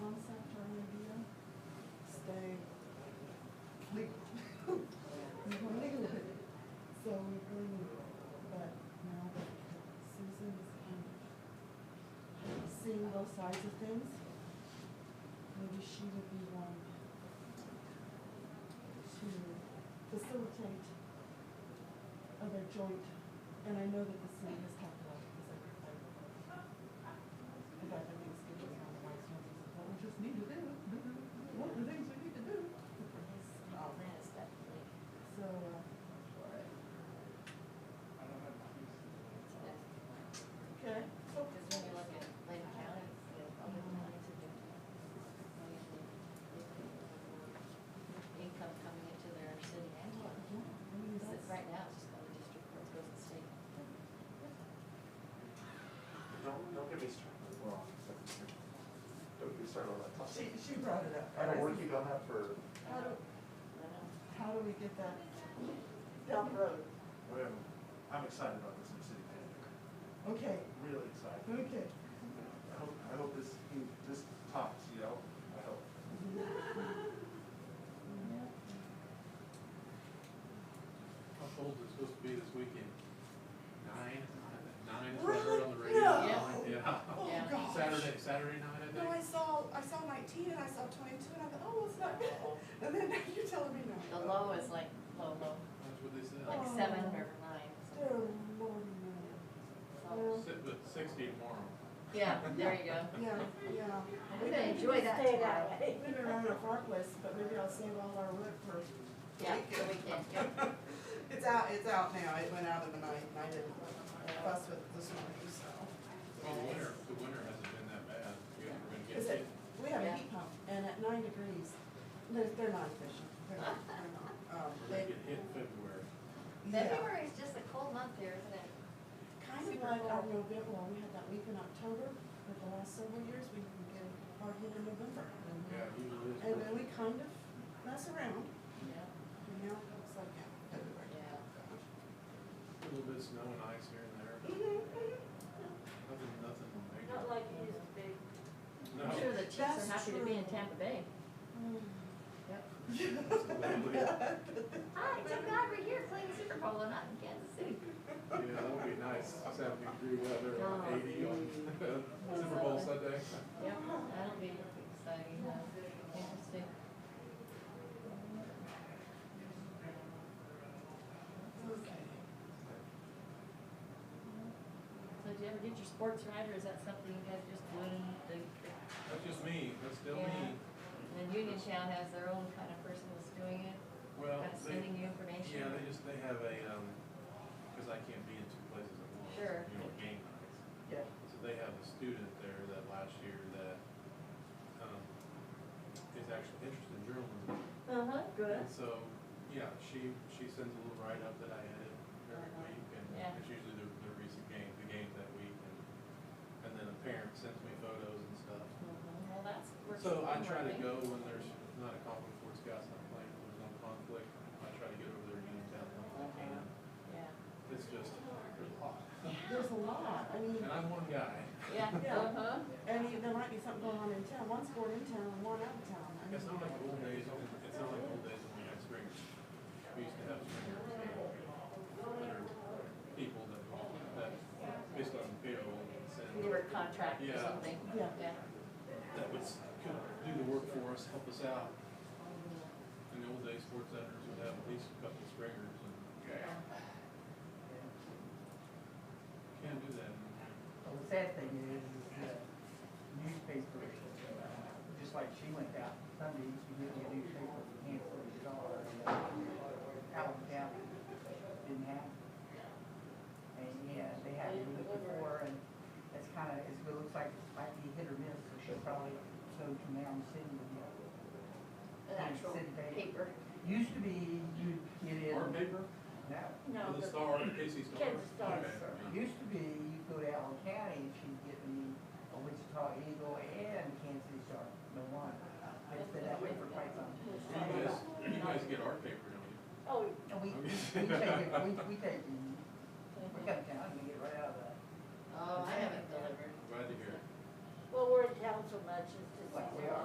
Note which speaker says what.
Speaker 1: both sides of things. Maybe she would be um, one to facilitate other joint, and I know that the city has talked about it, because I, I, I got the Thanksgiving on the White Sands, and what we just need to do, what are the things we need to do? Um, So, uh, okay, so.
Speaker 2: Income coming into their city and
Speaker 1: Yeah,
Speaker 2: one.
Speaker 1: I mean, that's-
Speaker 2: Right now, it's just going to district court, goes to state.
Speaker 3: Don't, don't get me started. Well, don't get me started on that
Speaker 1: She,
Speaker 3: topic.
Speaker 1: she brought it up.
Speaker 3: I don't work you done that for,
Speaker 1: How do,
Speaker 2: I don't know.
Speaker 1: how do we get that down the road?
Speaker 4: Well, I'm excited about this new city manager,
Speaker 1: Okay,
Speaker 4: really excited.
Speaker 1: okay.
Speaker 4: I hope, I hope this, this tops, you know, I hope.
Speaker 5: How cold is it supposed to be this weekend? Nine, nine is what I heard on the
Speaker 1: Really?
Speaker 5: radio.
Speaker 1: No.
Speaker 5: Yeah.
Speaker 1: Oh,
Speaker 2: Yeah.
Speaker 1: gosh.
Speaker 5: Saturday, Saturday night, I
Speaker 1: No, I
Speaker 5: think.
Speaker 1: saw, I saw nineteen and I saw twenty-two and I thought, oh, it's not bad. And then now you're telling me
Speaker 2: The
Speaker 1: no.
Speaker 2: low is like, low, low,
Speaker 5: That's what they
Speaker 2: like
Speaker 5: said.
Speaker 1: Oh.
Speaker 2: seven or nine.
Speaker 1: Dear Lord,
Speaker 2: So-
Speaker 1: no.
Speaker 5: Si- But sixty tomorrow.
Speaker 2: Yeah, there you go.
Speaker 1: Yeah, yeah.
Speaker 2: I'm gonna enjoy that
Speaker 6: Stay
Speaker 2: tomorrow.
Speaker 6: that way.
Speaker 1: We've been around a park list, but maybe I'll save all our wood for.
Speaker 2: Yeah, the weekend, yeah.
Speaker 1: It's out, it's out now. It went out in the night and I didn't fuss with it this morning, so.
Speaker 5: Well, the winter, the winter hasn't been that bad. We're gonna get
Speaker 1: Is
Speaker 5: hit.
Speaker 1: it, we have a
Speaker 2: Yeah.
Speaker 1: heat pump and at nine degrees, they're, they're not efficient. They're not, they're not. Um,
Speaker 5: We're
Speaker 1: they,
Speaker 5: gonna get hit in February.
Speaker 1: yeah.
Speaker 2: February is just a cold month here, isn't it?
Speaker 1: Kind of like our November, well, we had that week in October, but the last several years, we can get hardly in November. And
Speaker 5: Yeah, usually it's.
Speaker 1: and then we kind of mess around,
Speaker 2: Yeah.
Speaker 1: you know, it's like, yeah, February.
Speaker 2: Yeah.
Speaker 5: A little bit of snow and ice here and there. but
Speaker 1: Mm-hmm,
Speaker 5: Nothing, nothing major.
Speaker 6: Not like it used to be.
Speaker 5: No.
Speaker 2: I'm sure the Chiefs are
Speaker 1: That's
Speaker 2: happy to be in
Speaker 1: true.
Speaker 2: Tampa Bay.
Speaker 1: mm-hmm.
Speaker 2: Yep.
Speaker 5: Yeah,
Speaker 2: Hi, so glad we're here playing the Super Bowl and not in uh, Kansas City.
Speaker 5: that would be nice. Seventy degree weather,
Speaker 2: Oh,
Speaker 5: eighty on Super Bowl Sunday.
Speaker 2: Yep, that'll be exciting, huh? Interesting.
Speaker 1: Mm, Okay.
Speaker 2: So did you ever get your sports right, or is that something you guys just doing? the-
Speaker 5: That's just me. That's still
Speaker 2: Yeah.
Speaker 5: me.
Speaker 2: And Uniontown has their own kind of person that's doing it,
Speaker 5: Well,
Speaker 2: kind of
Speaker 5: Oh, they,
Speaker 2: sending you information.
Speaker 5: yeah, they just, they have a, um, cause I can't be in two places at once.
Speaker 2: Sure.
Speaker 5: You know, game nights.
Speaker 1: Yeah.
Speaker 5: So they have a student there that last year that, um, is actually interested in journalism.
Speaker 2: Uh-huh, good.
Speaker 5: And so, yeah, she, she sends a little write-up that I edit every
Speaker 1: Uh-huh.
Speaker 5: week, and
Speaker 2: Yeah.
Speaker 5: it's usually the, the recent game, the games that week, and, and then a parent sends me photos and stuff.
Speaker 2: Mhm, Well, that's. works-
Speaker 5: So I try to
Speaker 2: working.
Speaker 5: go when there's not a conflict for Scott's not playing, when there's no conflict, I try to get over there and get down if I can.
Speaker 2: Yeah,
Speaker 5: It's just, there's a lot.
Speaker 1: There's a lot, I mean,
Speaker 5: And I'm one guy.
Speaker 2: yeah,
Speaker 1: Yeah.
Speaker 2: uh-huh.
Speaker 1: and you- there might be something going on in town, one's going in town and one out of town. I mean,
Speaker 5: It's not like old days, it's not like old days when we had spring, we used to have spring. There are people that, that based on payroll and send,
Speaker 2: We were contract or
Speaker 5: Yeah.
Speaker 2: something.
Speaker 1: Yeah.
Speaker 2: Yeah.
Speaker 5: that would, s- could do the work for us, help us out. In the old days, sports editors would have at least a couple springers and. Can't do that anymore.
Speaker 7: Well, the sad thing is, is that newspaper, just like she went out Sunday, she didn't get a newspaper for Kansas City Star, uh, out of town, didn't have. it. And, yeah, they had it before, and it's kinda, it's, it looks like it might be hit or miss, so she'll probably go to Mound City. and get it.
Speaker 2: An actual
Speaker 7: Sit there.
Speaker 2: paper.
Speaker 7: Used to be, you'd get in,
Speaker 5: Art paper,
Speaker 7: now,
Speaker 6: No,
Speaker 5: for the
Speaker 6: the-
Speaker 5: star, the Casey Star.
Speaker 6: Kansas Star,
Speaker 5: Okay.
Speaker 6: sir.
Speaker 7: Used to be, you'd go to Allen County and she'd get me a Wichita Eagle and Kansas City Star, the one. It's been that way for quite some
Speaker 5: You
Speaker 7: time.
Speaker 5: guys, you guys get art paper, don't you?
Speaker 6: oh,
Speaker 7: And we, we take it, we, we take, we come down and we get right out of the.
Speaker 2: Oh, I haven't delivered.
Speaker 5: Glad to hear it.
Speaker 6: well, we're in town so much, it's